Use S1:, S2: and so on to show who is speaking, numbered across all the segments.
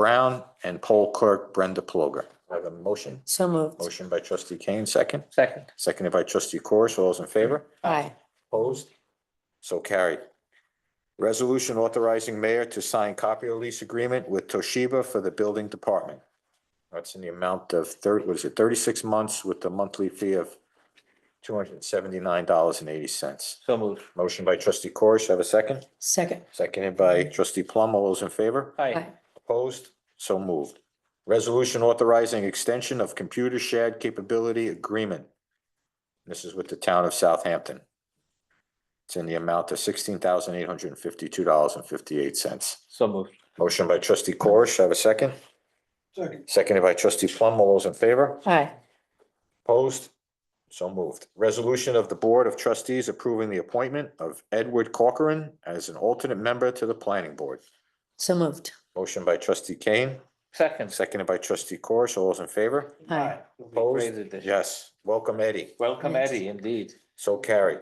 S1: Brown and poll clerk Brenda Ploger. I have a motion.
S2: So moved.
S1: Motion by trustee Kane, second.
S3: Second.
S1: Seconded by trustee Corus. All those in favor?
S2: Aye.
S1: Opposed? So carried. Resolution authorizing mayor to sign copy of lease agreement with Toshiba for the building department. That's in the amount of thirty, what is it, thirty-six months with the monthly fee of two hundred and seventy-nine dollars and eighty cents.
S3: So moved.
S1: Motion by trustee Corus. Have a second?
S2: Second.
S1: Seconded by trustee Plum. All those in favor?
S3: Aye.
S1: Opposed? So moved. Resolution authorizing extension of computer shared capability agreement. This is with the town of Southampton. It's in the amount of sixteen thousand eight hundred and fifty-two dollars and fifty-eight cents.
S3: So moved.
S1: Motion by trustee Corish, have a second? Second. Seconded by trustee Plum. All those in favor?
S2: Aye.
S1: Opposed? So moved. Resolution of the Board of Trustees approving the appointment of Edward Corcoran as an alternate member to the planning board.
S2: So moved.
S1: Motion by trustee Kane.
S3: Second.
S1: Seconded by trustee Corish. All those in favor?
S2: Aye.
S3: It'll be
S1: Opposed?
S3: great addition.
S1: Yes. Welcome, Eddie.
S3: Welcome,
S2: Yes.
S3: Eddie, indeed.
S1: So carried.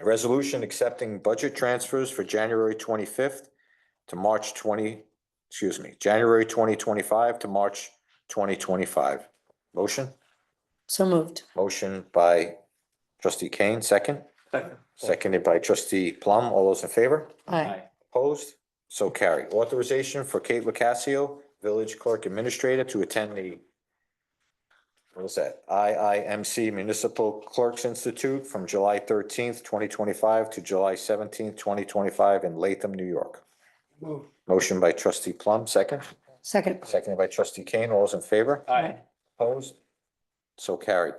S1: A Resolution accepting budget transfers for January twenty-fifth to March twenty, excuse me, January twenty twenty-five to March twenty twenty-five. Motion?
S2: So moved.
S1: Motion by trustee Kane, second.
S3: Second.
S1: Seconded by trustee Plum. All those in favor?
S2: Aye.
S1: Opposed? So carried. Authorization for Kate Lucassio, Village Clerk Administrator, to attend the what was that? IIMC Municipal Clerks Institute from July thirteenth, twenty twenty-five to July seventeenth, twenty twenty-five in Latham, New York. Motion by trustee Plum, second.
S2: Second.
S1: Seconded by trustee Kane. All those in favor?
S3: Aye.
S1: Opposed? So carried.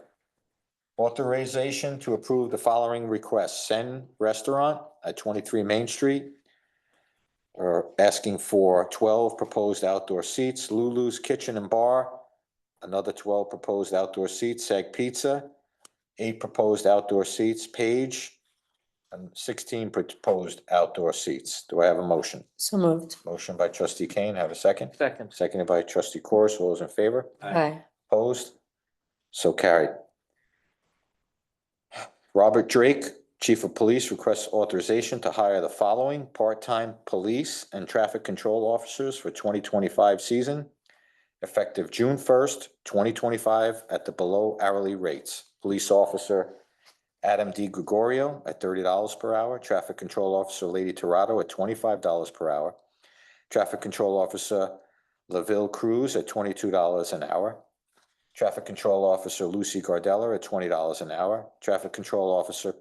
S1: Authorization to approve the following requests. Sen Restaurant at twenty-three Main Street. Are asking for twelve proposed outdoor seats, Lulu's Kitchen and Bar. Another twelve proposed outdoor seats, Sag Pizza. Eight proposed outdoor seats, Page. And sixteen proposed outdoor seats. Do I have a motion?
S2: So moved.
S1: Motion by trustee Kane, have a second.
S3: Second.
S1: Seconded by trustee Corus. All those in favor?
S2: Aye.
S1: Opposed? So carried. Robert Drake, Chief of Police, requests authorization to hire the following part-time police and traffic control officers for twenty twenty-five season, effective June first, twenty twenty-five, at the below hourly rates. Police Officer Adam D. Gregorio at thirty dollars per hour, Traffic Control Officer Lady Torado at twenty-five dollars per hour, Traffic Control Officer LaVille Cruz at twenty-two dollars an hour, Traffic Control Officer Lucy Gardella at twenty dollars an hour. Traffic Control Officer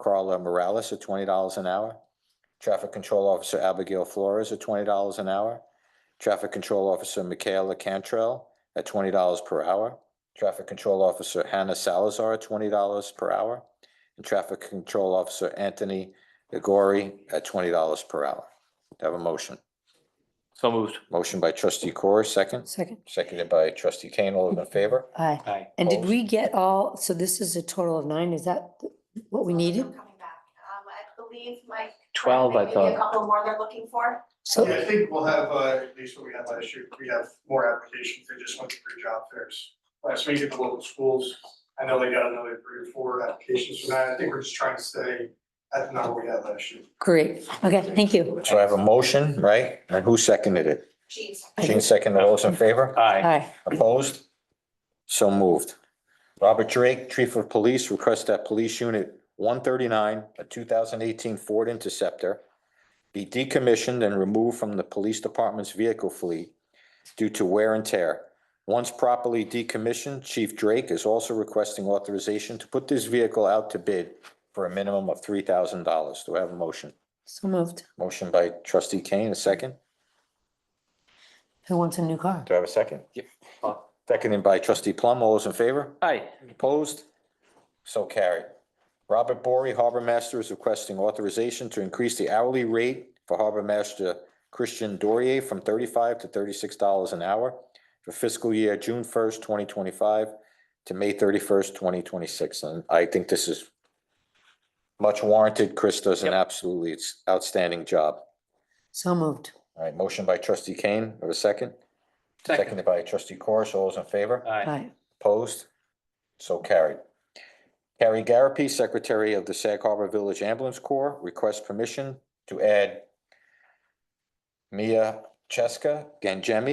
S1: Carla Morales at twenty dollars an hour. Traffic Control Officer Abigail Flores at twenty dollars an hour. Traffic Control Officer Michaela Cantrell at twenty dollars per hour. Traffic Control Officer Hannah Salazar at twenty dollars per hour. And Traffic Control Officer Anthony Agori at twenty dollars per hour. Do I Have a motion.
S3: So moved.
S1: Motion by trustee Corr, second.
S2: Second.
S1: Seconded by trustee Kane. All those in favor?
S2: Aye.
S3: Aye.
S2: And did
S1: Opposed?
S2: we get all, so this is a total of nine? Is that what we
S4: Some of them
S2: needed?
S4: Coming back, um, I believe Mike.
S3: 12, I
S4: maybe
S3: thought.
S4: A couple more they're looking for.
S2: So,
S5: Yeah, I think we'll have, uh, at least what we had last year, we have more applications, they just went through job fairs. Last week at the local schools, I know they got another three or four applications for that, I think we're just trying to stay at the number we had last year.
S2: great. Okay, thank you.
S1: So I have a motion, right? And who seconded it?
S4: Jeez.
S1: Gene seconded. All those in favor?
S3: Aye.
S2: Aye.
S1: Opposed? So moved. Robert Drake, Chief of Police, requests that Police Unit one thirty-nine, a two thousand eighteen Ford Interceptor be decommissioned and removed from the Police Department's vehicle fleet due to wear and tear. Once properly decommissioned, Chief Drake is also requesting authorization to put this vehicle out to bid for a minimum of three thousand dollars. Do I have a motion?
S2: So moved.
S1: Motion by trustee Kane, a second.
S2: Who wants a new car?
S1: Do I have a second?
S3: Yep.
S1: Seconded by trustee Plum. All those in favor?
S3: Aye.
S1: Opposed? So carried. Robert Bory, Harbor Master, is requesting authorization to increase the hourly rate for Harbor Master Christian Dorier from thirty-five to thirty-six dollars an hour for fiscal year June first, twenty twenty-five to May thirty-first, twenty twenty-six. And I think this is much warranted. Chris does an
S3: Yep.
S1: absolutely outstanding job.
S2: So moved.
S1: All right, motion by trustee Kane. Have a second?
S3: Second.
S1: Seconded by trustee Corish. All those in favor?
S3: Aye.
S2: Aye.
S1: Opposed? So carried. Carrie Garapi, Secretary of the Sag Harbor Village Ambulance Corps, requests permission to add Mia Ch- Cheska Gangemi